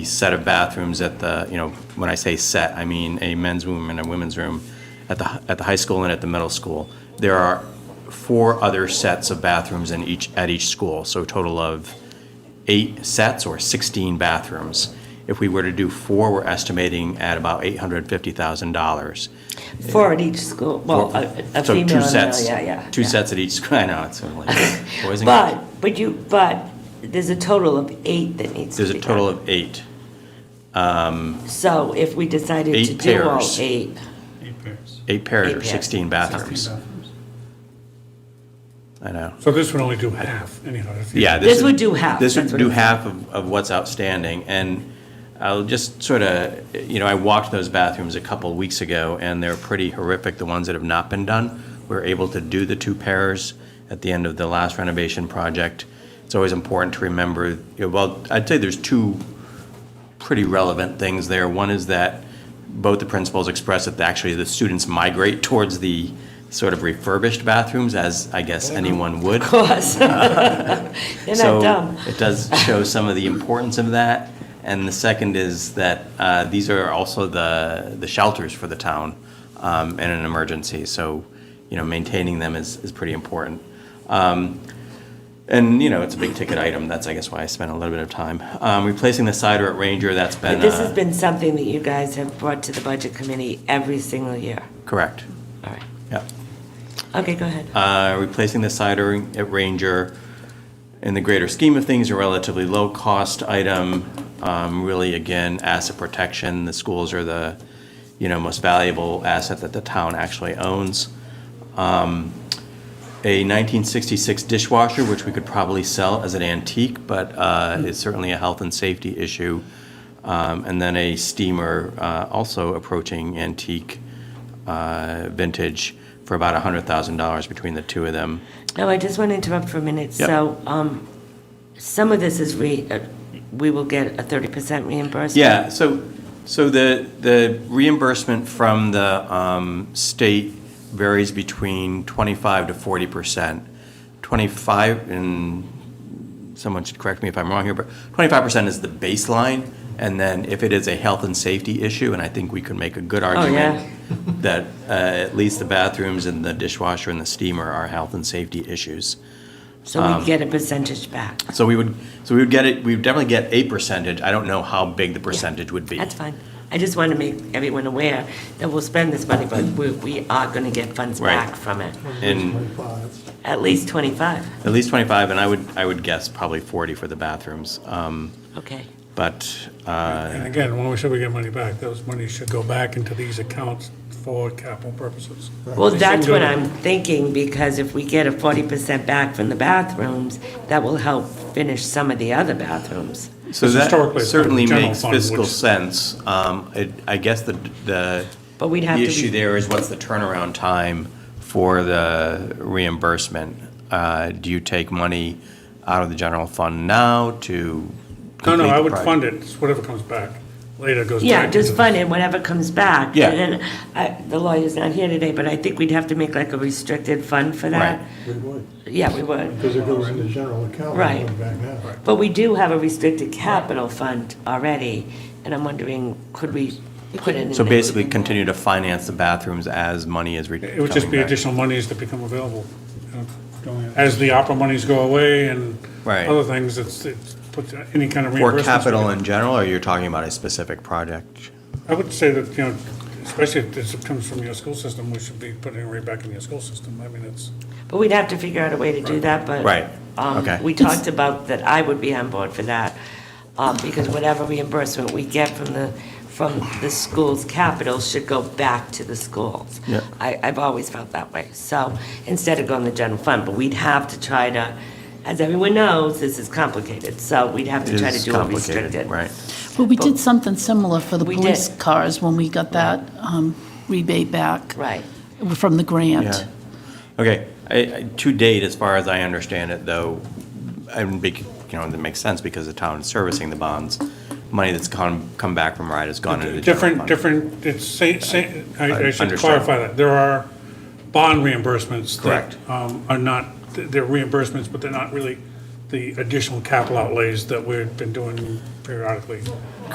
set of bathrooms at the, you know, when I say set, I mean a men's room and a women's room at the, at the high school and at the middle school. There are four other sets of bathrooms in each, at each school, so a total of eight sets or 16 bathrooms. If we were to do four, we're estimating at about $850,000. Four at each school, well, a a So two female and a male, sets- yeah, yeah. Two yeah. sets at each, school. I know, it's like boys and girls. But, but you, but there's a total of eight that needs to There's be a total done. of eight. So if we decided to Eight do all pairs. eight, Eight pairs. Eight pairs Eight or pairs. 16 bathrooms. I know. So this would only do half, anyhow. if you- Yeah. This would do half, This would that's what do I'm saying. half of, of what's outstanding. And I'll just sort of, you know, I walked those bathrooms a couple weeks ago and they're pretty horrific, the ones that have not been done. We were able to do the two pairs at the end of the last renovation project. It's always important to remember, you know, well, I'd say there's two pretty relevant things there. One is that both the principals expressed that actually the students migrate towards the sort of refurbished bathrooms as I guess anyone would. Mm-hmm. of course. They're So not dumb. It does show some of the importance of that. And the second is that uh, these are also the, the shelters for the town um, in an emergency. So, you know, maintaining them is, is pretty important. Um, And, you know, it's a big ticket item. That's, I guess, why I spent a little bit of time. Um, Replacing the cider at Ranger, that's been. But this uh, has been something that you guys have brought to the budget committee every single year. Correct. All right. Yep. Okay, go ahead. uh, replacing the cider at Ranger. In the greater scheme of things, a relatively low-cost item. Um, Really, again, asset protection. The schools are the, you know, most valuable asset that the town actually owns. Um, A 1966 dishwasher, which we could probably sell as an antique, but uh, is certainly a health and safety issue. Um, And then a steamer, uh, also approaching antique uh, vintage for about $100,000 between the two of them. No, I just want to interrupt for a minute. Yep. So, um, some of this is re, uh, we will get a thirty percent reimbursement. Yeah, so, so the, the reimbursement from the um, state varies between 25 to 40%. 25, and someone should correct me if I'm wrong here, but 25% is the baseline, and then if it is a health and safety issue, and I think we could make a good argument that uh, at least the bathrooms and the dishwasher and the steamer are health and safety issues. So um, we get a percentage back. So we would, so we would get it, we would definitely get a percentage. I don't know how big the percentage would be. That's fine. I just want to make everyone aware that we'll spend this money, but we, we are going to get funds Right. back from it. And At least twenty-five. at least 25, and I would, I would guess probably 40 for the bathrooms. Um, Okay. But, uh, And again, when we said we get money back, those monies should go back into these accounts for capital purposes. Well, that's what Single- I'm thinking, because if we get a forty percent back from the bathrooms, that will help finish some of the other bathrooms. so Because that historically, it's been certainly the general makes fund, fiscal which- sense. Um, it- I guess the, the But we'd have the to be- issue there is what's the turnaround time for the reimbursement? Uh, Do you take money out of the general fund now to No, no, complete I the would project? fund it, It's whatever comes back. Later goes back. Yeah, just into fund it, whatever comes back. Yeah. And then, I- the lawyer's not here today, but I think we'd have to make like a restricted fund for that. Right. We would, Yeah, we would. because it goes into general account. Right. and Back now. But we do have a restricted capital fund already, and I'm wondering, could we put it in? So there? basically continue to finance the bathrooms as money is re- It would just coming be back. additional monies that become available. you know, going- As the opera monies go away and Right. other things, it's, it's put any kind of For reimbursement. capital in general, or you're talking about a specific project? I would say that, you know, especially if this comes from your school system, we should be putting it right back in your school system. I mean, it's, But we'd have to figure out a way to do that, but. Right. um, Okay. We talked about that I would be on board for that, um, because whatever reimbursement we get from the, from the school's capital should go back to the schools. Yeah. I, I've always felt that way, so, instead of going to general fund, but we'd have to try to, as everyone knows, this is complicated, so we'd have to try to It's do it complicated, restricted. Right. Well, we did something similar for the We police did. cars when we got that um, rebate back Right. from the grant. Yeah. Okay, I, I, to date, as far as I understand it, though, I would be, you know, that makes sense because the town is servicing the bonds. Money that's come, come back from RIDE has gone into the general Different, fund. different, it's same, same, I I should Understood. clarify that. There are bond reimbursements Correct. that um, are not, they're reimbursements, but they're not really the additional capital outlays that we've been doing periodically.